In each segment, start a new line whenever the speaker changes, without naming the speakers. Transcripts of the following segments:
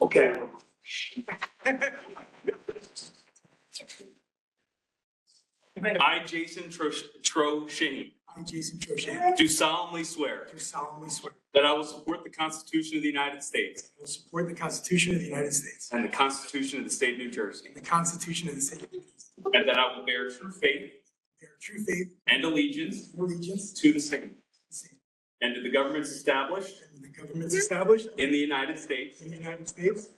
Okay.
I, Jason Trosh- Trochean,
I, Jason Trochet,
do solemnly swear
do solemnly swear
that I will support the Constitution of the United States
that I will support the Constitution of the United States
and the Constitution of the State of New Jersey,
and the Constitution of the State of New Jersey,
and that I will bear true faith
bear true faith
and allegiance
and allegiance to
to the same
the same,
and to the governments established
and the governments established
in the United States
in the United States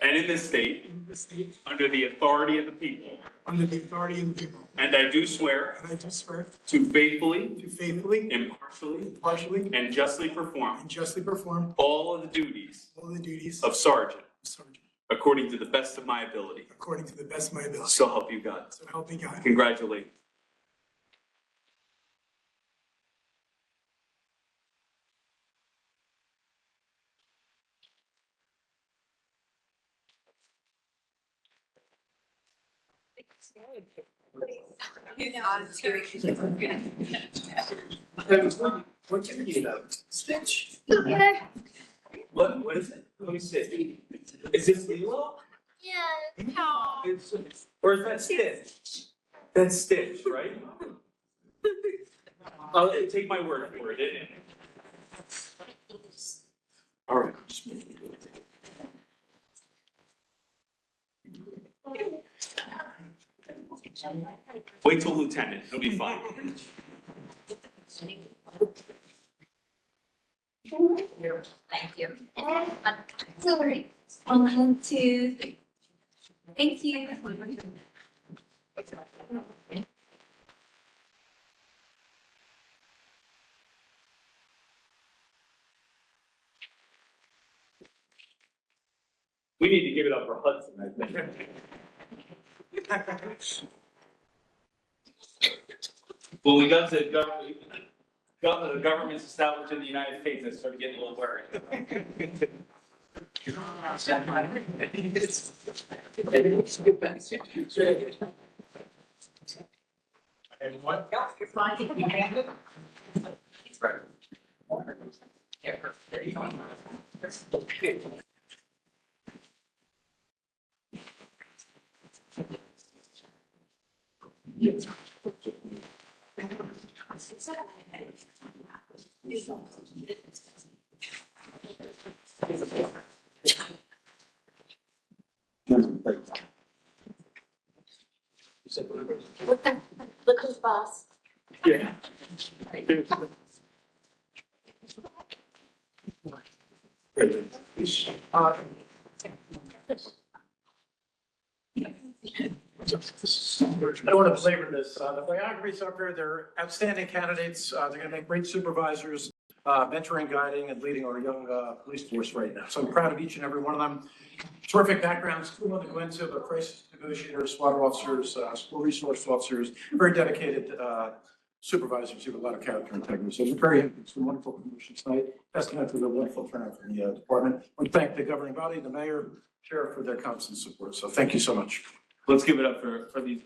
and in this state
and in the state
under the authority of the people.
under the authority of the people.
And I do swear
And I do swear
to faithfully,
to faithfully,
impartially,
impartially,
and justly perform
and justly perform
all of the duties
all the duties of
of sergeant
sergeant
according to the best of my ability.
according to the best of my ability.
So help you God.
So help me God.
Congratulations.
What can you do? Stitch.
What, what is it? Let me see. Is this Lilo?
How?
It's- Or is that Stitch? That's Stitch, right? I'll take my word for it. it.
All right.
Wait till lieutenant, it'll be fine.
Thank you. Sorry. One, two, three. Thank you.
We need to give it up for Hudson, I think. Well, we got to government, the government's established in the United States, I started getting a little worried.
And what?
Look who's boss.
Yeah.
I don't want to belabor this. Uh, The biographies up here, they're outstanding candidates. Uh, They're going to make great supervisors, uh, mentoring, guiding, and leading our young uh, police force right now. So I'm proud of each and every one of them. Terrific backgrounds, school to go into, but crisis negotiators, SWAT officers, uh, school resource officers, very dedicated uh, supervisors who have a lot of character and integrity. So we're very happy. It's been wonderful promotion tonight. Testament to the wonderful turnout from the uh, department. We thank the governing body, the mayor, sheriff for their constant support. So thank you so much.
Let's give it up for, for these.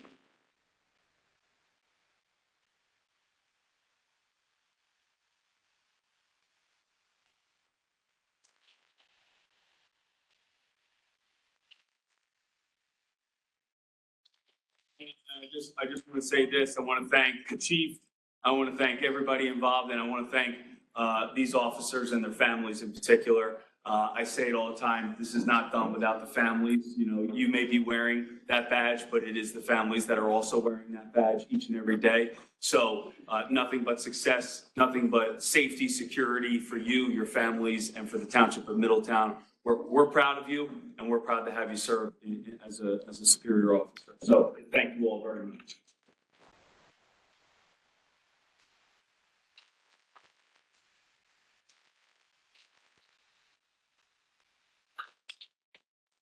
And I just, I just want to say this, I want to thank the chief, I want to thank everybody involved, and I want to thank uh, these officers and their families in particular. Uh, I say it all the time, this is not done without the families. You know, you may be wearing that badge, but it is the families that are also wearing that badge each and every day. So uh, nothing but success, nothing but safety, security for you, your families, and for the township of Middletown. We're, we're proud of you, and we're proud to have you serve in- as a, as a superior officer. So thank you all very much.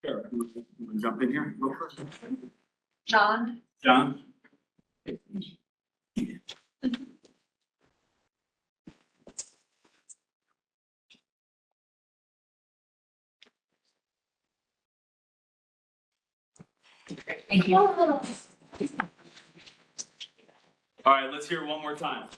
Sure. You wanna Jump in here. real quick?
John?
John?
Thank you.
All right, let's hear it one more time.